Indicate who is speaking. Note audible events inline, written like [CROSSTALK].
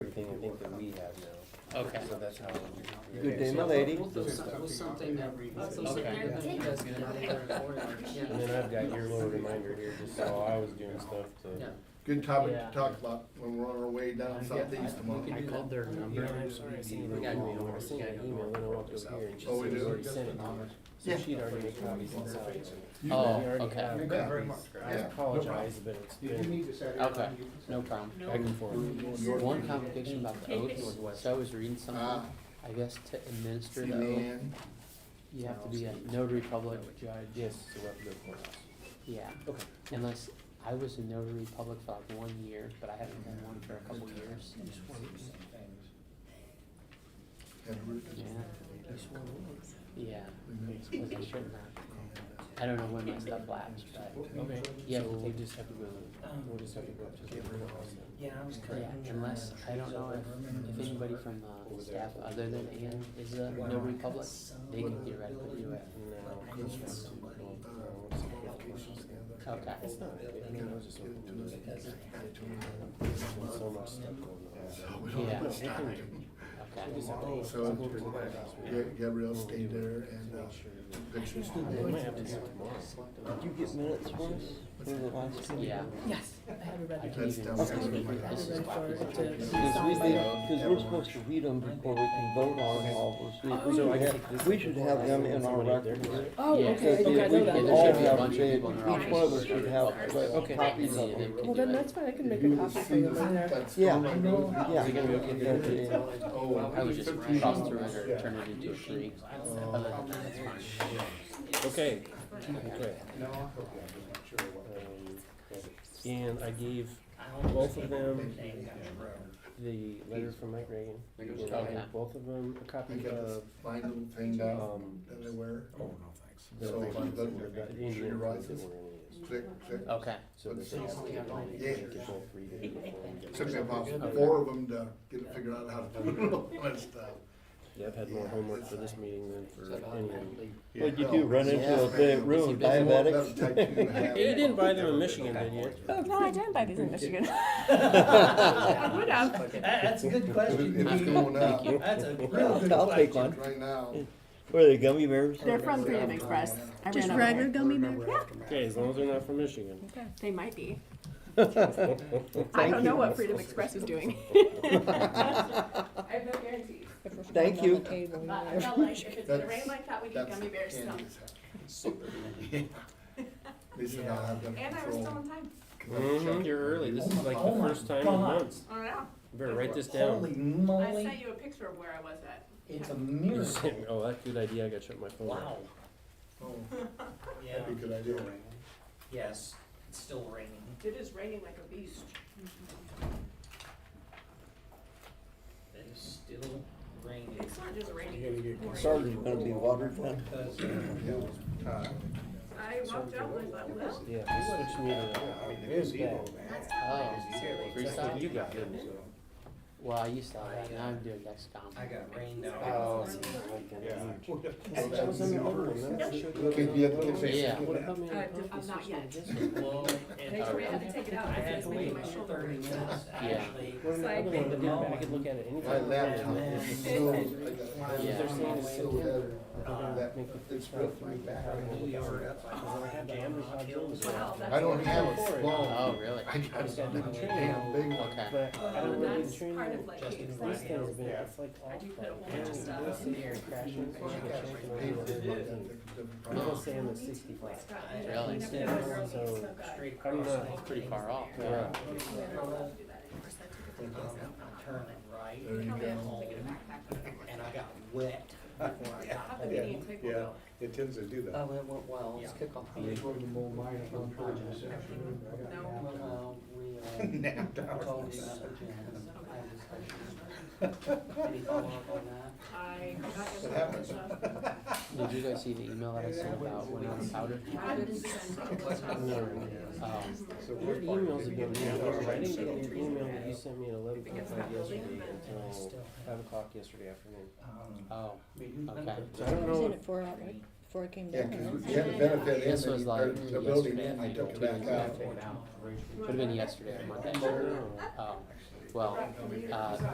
Speaker 1: have now.
Speaker 2: Okay.
Speaker 1: So that's how. we-
Speaker 3: Good day, my lady.
Speaker 4: We'll do some, we'll something that, we'll
Speaker 2: Okay.
Speaker 4: something that you guys can do there for you,
Speaker 1: And
Speaker 4: yeah.
Speaker 1: then I've got your little reminder here, just so I was doing stuff
Speaker 4: Yeah.
Speaker 1: to.
Speaker 5: Good topic
Speaker 2: Yeah.
Speaker 5: to talk about when we're on our way down southeast tomorrow.
Speaker 4: We
Speaker 2: I
Speaker 4: can do
Speaker 2: called
Speaker 4: that.
Speaker 2: their number.
Speaker 1: I'm sorry, I seen an email, I seen an email, and I walked over here and she said,
Speaker 5: Oh, we
Speaker 1: "You
Speaker 5: do?
Speaker 1: already sent it to her." So
Speaker 5: Yeah.
Speaker 1: she'd already made copies and stuff.
Speaker 5: You-
Speaker 2: Oh,
Speaker 1: We already
Speaker 2: okay.
Speaker 1: have
Speaker 5: You bet.
Speaker 1: copies. I
Speaker 5: Yeah, no
Speaker 1: apologize, but it's been
Speaker 2: Okay, no problem.
Speaker 1: back and forth.
Speaker 5: North
Speaker 2: One
Speaker 5: Korea.
Speaker 2: complication about the oath was, so I was reading
Speaker 5: Ah,
Speaker 2: something, I guess to administer the oath,
Speaker 5: CNN.
Speaker 2: you have to be a notary public judge,
Speaker 1: Yes, so we have to go for it.
Speaker 2: yeah.
Speaker 1: Okay.
Speaker 2: Unless, I was a notary public for like one year, but I haven't done one for a couple years.
Speaker 5: And we're-
Speaker 2: Yeah. Yeah,
Speaker 1: Mm-hmm.
Speaker 2: was I shouldn't have. I don't know when my stuff lapsed, but,
Speaker 1: Okay.
Speaker 2: Yeah,
Speaker 1: So
Speaker 2: we'll
Speaker 1: we'll
Speaker 2: take-
Speaker 1: just have to go, we'll just have to go up to the courthouse then.
Speaker 4: Yeah, I was
Speaker 2: yeah, unless, I don't know if, if anybody from, uh, staff other than Ann is a notary public, they can theoretically do it.
Speaker 1: No,
Speaker 4: I
Speaker 1: it's
Speaker 4: need
Speaker 1: not.
Speaker 4: somebody.
Speaker 1: No, it's not.
Speaker 2: Okay.
Speaker 1: It's not, I mean, I was just looking through it. There's been so much stuff going on.
Speaker 5: We don't have
Speaker 2: Yeah.
Speaker 5: much time.
Speaker 1: We just
Speaker 2: Okay.
Speaker 1: have to-
Speaker 5: Oh, so
Speaker 1: I'll go over to my house.
Speaker 5: Ga- Gabrielle stayed
Speaker 1: We'll do it.
Speaker 5: there and, uh,
Speaker 1: Make sure that-
Speaker 5: pictures.
Speaker 1: I might have to do it tomorrow.
Speaker 3: Did you get minutes for us? For the last meeting?
Speaker 2: Yeah.
Speaker 6: Yes, I have a
Speaker 2: I
Speaker 6: ready.
Speaker 2: can
Speaker 5: That's
Speaker 2: even,
Speaker 5: down
Speaker 2: this
Speaker 5: there.
Speaker 2: is, this
Speaker 3: Cause we
Speaker 2: is
Speaker 6: Sounds
Speaker 3: did,
Speaker 6: like-
Speaker 3: cause we're supposed to read them before we can vote on them all, so we
Speaker 1: So I
Speaker 3: should
Speaker 1: can
Speaker 3: have,
Speaker 1: take this
Speaker 3: we
Speaker 1: and
Speaker 3: should
Speaker 1: put it
Speaker 3: have them
Speaker 1: online.
Speaker 3: in our
Speaker 1: Somebody up there
Speaker 3: records.
Speaker 1: do it.
Speaker 6: Oh,
Speaker 2: Yeah.
Speaker 6: okay,
Speaker 3: Because
Speaker 6: I think I
Speaker 3: if we
Speaker 6: know
Speaker 3: could
Speaker 2: there
Speaker 6: that.
Speaker 3: all
Speaker 2: should be a
Speaker 3: have,
Speaker 2: bunch of people in our
Speaker 3: each one of us
Speaker 2: office.
Speaker 3: should have
Speaker 1: Okay.
Speaker 3: copies of
Speaker 2: Yeah,
Speaker 3: them.
Speaker 2: they
Speaker 6: Well,
Speaker 2: can
Speaker 6: then
Speaker 2: do
Speaker 6: that's
Speaker 2: it.
Speaker 6: fine, I can make a copy for you in there.
Speaker 3: Yeah.
Speaker 2: Is it gonna be okay
Speaker 3: Yeah, yeah, yeah.
Speaker 5: Oh.
Speaker 2: I was just cross through it or turn it into a tree. Other than that, it's fine.
Speaker 1: Okay, okay. Um, And I gave both of them the letter from Mike Reagan. And I
Speaker 2: Okay.
Speaker 1: gave both of them a
Speaker 5: I
Speaker 1: copy
Speaker 5: got this
Speaker 1: of,
Speaker 5: fine little thing down
Speaker 1: um,
Speaker 5: that I wear.
Speaker 1: the
Speaker 5: So
Speaker 1: things
Speaker 5: if I
Speaker 1: that
Speaker 5: look
Speaker 1: were
Speaker 5: at
Speaker 1: about
Speaker 5: it,
Speaker 1: the Indian
Speaker 5: you're right.
Speaker 1: ones that were in it.
Speaker 5: Click, click.
Speaker 2: Okay,
Speaker 1: So that they have to get mine, and
Speaker 5: Yeah.
Speaker 1: they could both read it before we get
Speaker 5: Took me
Speaker 1: ready.
Speaker 5: about four of them to get it figured out how to do all that stuff.
Speaker 1: Yeah, I've had more homework for this meeting than for any of them.
Speaker 3: What'd you do, run into a bit of room,
Speaker 5: That's more-
Speaker 3: [LAUGHS]
Speaker 5: that'll
Speaker 3: diabetics?
Speaker 5: take two and
Speaker 1: [LAUGHS]
Speaker 5: a half.
Speaker 1: Hey, you didn't buy them in Michigan, did you?
Speaker 6: Oh, no, I didn't buy these
Speaker 7: [LAUGHS]
Speaker 6: in Michigan. I would have.
Speaker 4: That's a good
Speaker 5: It was- it was
Speaker 4: Dean.
Speaker 5: going out
Speaker 4: That's a real
Speaker 3: I'll take one.
Speaker 5: right now.
Speaker 3: What are they, gummy bears?
Speaker 6: They're from Freedom Express. I ran out of them.
Speaker 7: gummy bear?
Speaker 1: Okay, as long as they're not from Michigan.
Speaker 6: They might be. I don't know what Freedom Express is
Speaker 7: [LAUGHS]
Speaker 6: doing. [LAUGHS]
Speaker 7: I have no guarantees.
Speaker 3: Thank you.
Speaker 7: But I felt like if it's gonna rain
Speaker 5: That's-
Speaker 7: like that, we need
Speaker 5: That's
Speaker 7: gummy bears still.
Speaker 5: Andy's house.
Speaker 1: [LAUGHS]
Speaker 5: They said I'll have them
Speaker 7: And I was
Speaker 5: control.
Speaker 7: still on time.
Speaker 1: Mhm, You're early, this is like
Speaker 4: Oh
Speaker 1: the
Speaker 4: my
Speaker 1: first time in
Speaker 4: God.
Speaker 1: months.
Speaker 7: I don't know.
Speaker 1: You Better write this
Speaker 4: Holy
Speaker 1: down.
Speaker 7: I sent
Speaker 4: moly,
Speaker 7: you a picture of where I was at.
Speaker 4: it's
Speaker 1: [LAUGHS]
Speaker 4: a
Speaker 1: You
Speaker 4: miracle.
Speaker 1: sent- Oh, that's a good idea, I gotta shut my phone
Speaker 4: Wow.
Speaker 1: off.
Speaker 5: Oh,
Speaker 4: Yeah,
Speaker 5: That'd be a good idea.
Speaker 4: yes, it's still raining.
Speaker 7: It is raining like a beast.
Speaker 4: It is still raining.
Speaker 7: It's not just raining. it's pouring.
Speaker 3: Sarge's gonna be watered down.
Speaker 4: Because
Speaker 7: I walked out and I thought, well,
Speaker 1: Yeah, they switched me to,
Speaker 2: oh,
Speaker 1: Freestyle? you got him, so.
Speaker 2: well, I used to have that, now I'm doing Dexcom.
Speaker 4: I got rained
Speaker 1: Oh,
Speaker 4: out.
Speaker 1: see, like that.
Speaker 5: That was in the order,
Speaker 1: Can't
Speaker 5: Can't be at the kitchen.
Speaker 2: Yeah.
Speaker 7: uh, I'm not yet. [LAUGHS]
Speaker 4: Well, and
Speaker 7: They told me I had to take it out
Speaker 4: I
Speaker 7: because
Speaker 4: had
Speaker 7: it's
Speaker 4: to wait
Speaker 7: making my
Speaker 4: about
Speaker 7: shoulder.
Speaker 4: thirty
Speaker 7: hurt.
Speaker 4: minutes to actually.
Speaker 7: It's like,
Speaker 1: I could look at it, I could look at it
Speaker 5: My
Speaker 1: anytime.
Speaker 5: laptop is so, I got,
Speaker 2: Yeah.
Speaker 5: it's so heavy.
Speaker 1: Uh,
Speaker 5: That- It's ripped my back.
Speaker 1: Jammers, hot jammers.
Speaker 7: Wow,
Speaker 5: I
Speaker 7: that's.
Speaker 5: don't have a small,
Speaker 2: Oh, really?
Speaker 5: I got a damn big one.
Speaker 2: Okay.
Speaker 1: [LAUGHS] But I don't
Speaker 7: Um,
Speaker 1: really
Speaker 7: That's
Speaker 1: train
Speaker 7: part
Speaker 1: them.
Speaker 7: of like.
Speaker 4: Just
Speaker 7: being
Speaker 4: in
Speaker 1: These
Speaker 7: excited.
Speaker 1: things have been, it's like
Speaker 7: I
Speaker 1: all
Speaker 7: do put a whole bunch of stuff.
Speaker 1: fun. Sitting here crashing.
Speaker 5: I got
Speaker 1: crashing,
Speaker 5: my
Speaker 1: crashing.
Speaker 5: paper in my hand.
Speaker 1: I'm gonna say I'm at sixty
Speaker 7: It's
Speaker 1: five.
Speaker 7: got-
Speaker 2: Really?
Speaker 7: Never did a girl
Speaker 1: So,
Speaker 7: eat so good.
Speaker 4: Straight
Speaker 1: I'm
Speaker 4: across.
Speaker 1: not-
Speaker 4: the-
Speaker 2: Pretty far off.
Speaker 1: Yeah.
Speaker 7: Yeah, I don't do that anymore, so I took it to the hospital.
Speaker 4: Turn it right,
Speaker 5: There you
Speaker 7: Probably
Speaker 5: go.
Speaker 7: have to take it back, back, back.
Speaker 4: and I got wet before I got
Speaker 7: I'll have to
Speaker 4: home.
Speaker 7: meeting and take one out.
Speaker 8: It tends to do that.
Speaker 4: Oh, it went well, it's kick off.
Speaker 7: No.
Speaker 4: Well, [LAUGHS] we, uh,
Speaker 8: Napped [LAUGHS] out.
Speaker 4: told you about the jams. I just- Any follow-up on that?
Speaker 7: I got your
Speaker 5: What happened?
Speaker 7: stuff.
Speaker 2: Did you guys see the email that I sent about when I was powder?
Speaker 7: I didn't send it.
Speaker 2: Oh,
Speaker 8: So
Speaker 1: Your
Speaker 8: we're
Speaker 1: emails have been,
Speaker 8: Yeah.
Speaker 1: weird. I didn't get your email that you sent me at eleven
Speaker 7: Because
Speaker 1: forty-five
Speaker 7: I'm building
Speaker 1: yesterday
Speaker 7: them.
Speaker 1: until five o'clock yesterday afternoon.
Speaker 4: Um,
Speaker 2: oh, okay.
Speaker 1: So I don't know if
Speaker 6: four hours, before it came
Speaker 5: Yeah, cause we had a benefit
Speaker 2: This was
Speaker 5: in the,
Speaker 2: like
Speaker 5: the building,
Speaker 2: yesterday,
Speaker 5: I took
Speaker 2: two
Speaker 5: it back
Speaker 2: days
Speaker 5: out.
Speaker 2: ago. Would've been yesterday or Monday. Oh, Um, well, uh,